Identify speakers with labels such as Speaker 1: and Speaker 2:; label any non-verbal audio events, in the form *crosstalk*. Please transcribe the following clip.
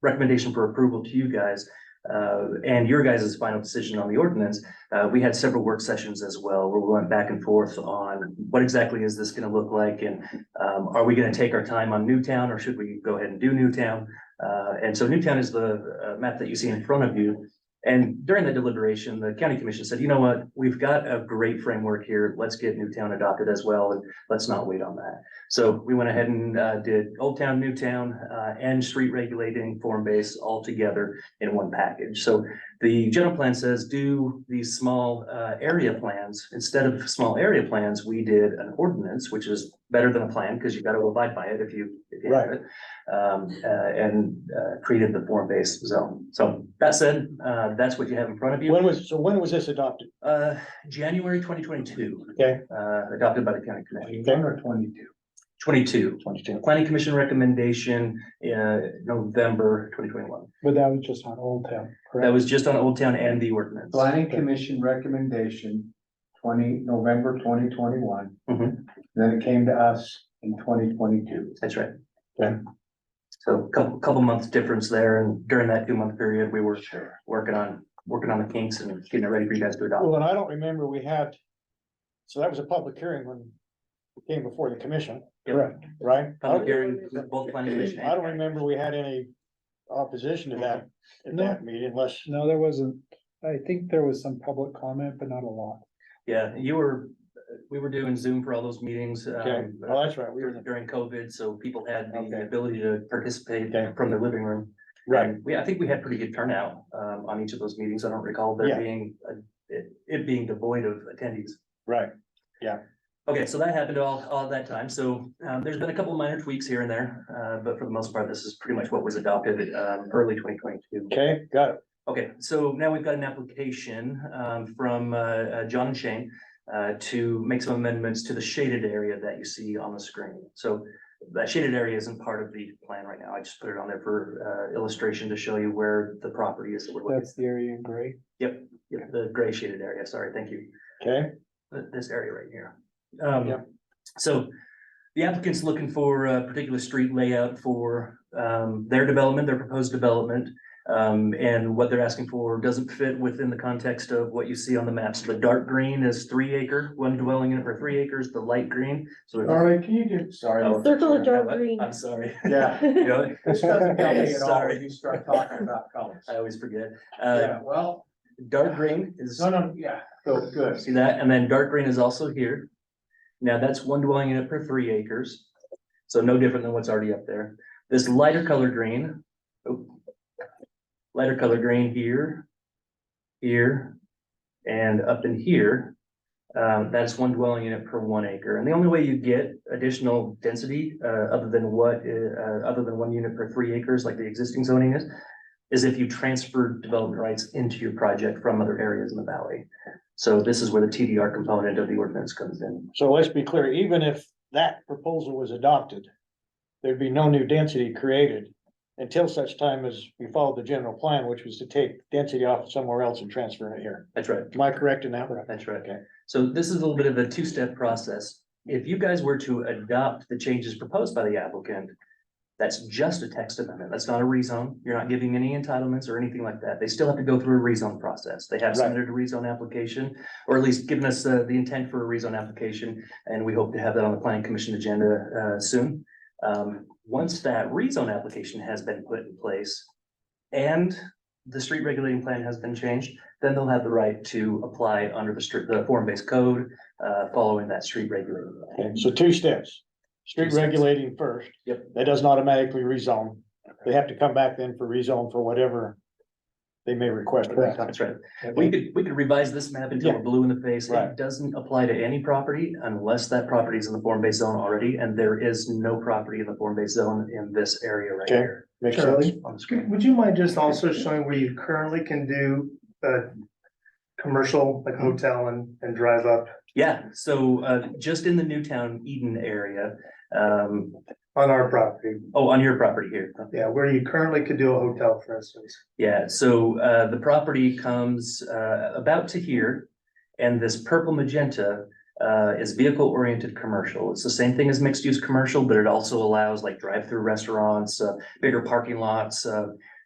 Speaker 1: recommendation for approval to you guys. Uh, and your guys' final decision on the ordinance, uh, we had several work sessions as well, where we went back and forth on what exactly is this gonna look like? And, um, are we gonna take our time on Newtown or should we go ahead and do Newtown? Uh, and so Newtown is the, uh, map that you see in front of you. And during the deliberation, the county commission said, you know what, we've got a great framework here. Let's get Newtown adopted as well and let's not wait on that. So we went ahead and uh, did Old Town, New Town, uh, and street regulating form base all together in one package. So the general plan says do these small uh, area plans. Instead of small area plans, we did an ordinance, which is better than a plan because you got to abide by it if you. if you have
Speaker 2: Right.
Speaker 1: it. Um, uh, and uh, created the form based zone. So that said, uh, that's what you have in front of you.
Speaker 2: When was, so when was this adopted?
Speaker 1: Uh, January twenty twenty-two.
Speaker 2: Okay.
Speaker 1: Uh, adopted by the county commission,
Speaker 2: November twenty-two.
Speaker 1: twenty-two.
Speaker 2: Twenty-two.
Speaker 1: Planning Commission recommendation, uh, November twenty twenty-one.
Speaker 2: But that was just on Old Town,
Speaker 1: That
Speaker 2: correct?
Speaker 1: was just on Old Town and the ordinance.
Speaker 3: Planning Commission recommendation, twenty, November twenty twenty-one.
Speaker 1: Mhm.
Speaker 3: Then it came to us in twenty twenty-two.
Speaker 1: That's right.
Speaker 2: Okay.
Speaker 1: So couple, couple months difference there and during that two month period, we were
Speaker 3: Sure.
Speaker 1: working on, working on the kinks and getting it ready for you guys to adopt.
Speaker 2: Well, and I don't remember we had, so that was a public hearing when it came before the commission,
Speaker 1: Yep.
Speaker 2: correct, right?
Speaker 1: Public hearing, with both planning commission. and-
Speaker 2: I don't remember we had any opposition to that at
Speaker 4: No.
Speaker 2: that meeting unless,
Speaker 4: No, there wasn't. I think there was some public comment, but not a lot.
Speaker 1: Yeah, you were, we were doing Zoom for all those meetings.
Speaker 2: okay,
Speaker 1: um,
Speaker 2: well, that's right, we were in the.
Speaker 1: During COVID, so people had the
Speaker 2: Okay.
Speaker 1: ability to participate
Speaker 2: Okay.
Speaker 1: from their living room. And We, I think we had pretty good turnout, um, on each of those meetings. I don't recall there
Speaker 2: Yeah.
Speaker 1: being, uh, it, it being devoid of attendees.
Speaker 2: Right,
Speaker 1: Okay, so that happened all, all that time. So, um, there's been a couple minor tweaks here and there, uh, but for the most part, this is pretty much what was adopted, um, early twenty twenty-two.
Speaker 2: okay, got it.
Speaker 1: Okay, so now we've got an application um, from uh, uh, John and Shane uh, to make some amendments to the shaded area that you see on the screen. So that shaded area isn't part of the plan right now. I just put it on there for uh, illustration to show you where the property is that we're looking.
Speaker 4: That's the area in gray.
Speaker 1: Yeah, The gray shaded area, sorry, thank you
Speaker 2: Okay,
Speaker 1: th- this area right here. Um,
Speaker 2: Yep.
Speaker 1: So the applicant's looking for a particular street layout for um, their development, their proposed development. Um, and what they're asking for doesn't fit within the context of what you see on the maps. The dark green is three acre, one dwelling unit for three acres, the light green. So.
Speaker 3: All right, can you do, sorry. I'll-
Speaker 5: Circle of
Speaker 1: *laughs*
Speaker 5: dark green.
Speaker 1: I'm sorry.
Speaker 3: Yeah.
Speaker 1: *laughs* You know,
Speaker 3: *laughs* This doesn't help me at all
Speaker 1: Sorry.
Speaker 3: when you start talking about colors.
Speaker 1: I always forget. Uh,
Speaker 3: Yeah, well,
Speaker 1: dark green is.
Speaker 3: no, no, yeah, so good.
Speaker 1: See that? And then dark green is also here. Now that's one dwelling unit per three acres. So no different than what's already up there. This lighter color green. oh, Lighter color green here. Here. And up in here. Um, that's one dwelling unit per one acre. And the only way you get additional density, uh, other than what, uh, uh, other than one unit per three acres, like the existing zoning is. Is if you transfer development rights into your project from other areas in the valley. So this is where the TDR component of the ordinance comes in.
Speaker 2: so let's be clear, even if that proposal was adopted, there'd be no new density created until such time as we followed the general plan, which was to take density off somewhere else and transfer it here.
Speaker 1: That's right.
Speaker 2: Am I correct in that?
Speaker 1: That's right.
Speaker 2: Okay.
Speaker 1: So this is a little bit of a two-step process. If you guys were to adopt the changes proposed by the applicant, that's just a text amendment. That's not a rezone. You're not giving any entitlements or anything like that. They still have to go through a rezone process. They have
Speaker 2: Right.
Speaker 1: submitted a rezone application, or at least given us uh, the intent for a rezone application, and we hope to have that on the planning commission agenda uh, soon. Um, Once that rezone application has been put in place and the street regulating plan has been changed, then they'll have the right to apply under the stri- the form-based code, uh, following that street regulating. plan.
Speaker 2: Okay, so two steps.
Speaker 1: Two
Speaker 2: Street
Speaker 1: steps.
Speaker 2: regulating first.
Speaker 1: Yep.
Speaker 2: That doesn't automatically rezone. They have to come back then for rezone for whatever they may request. at that time.
Speaker 1: That's right. We could, we could revise this map until we're blue in the face. It
Speaker 2: Right.
Speaker 1: doesn't apply to any property unless that property is in the form-based zone already, and there is no property in the form-based zone in this area right
Speaker 2: Okay.
Speaker 1: here.
Speaker 2: Makes
Speaker 4: Charlie?
Speaker 2: sense.
Speaker 1: On the screen.
Speaker 4: Would you mind just also showing where you currently can do, uh, commercial, like hotel and, and drive up
Speaker 1: Yeah, so, uh, just in the Newtown Eden area, um,
Speaker 4: on our property?
Speaker 1: oh, on your property here.
Speaker 4: Yeah, where you currently could do a hotel, for instance.
Speaker 1: Yeah, so uh the property comes uh about to here. And this purple magenta uh, is vehicle oriented commercial. It's the same thing as mixed use commercial, but it also allows like drive through restaurants, uh, bigger parking lots, uh,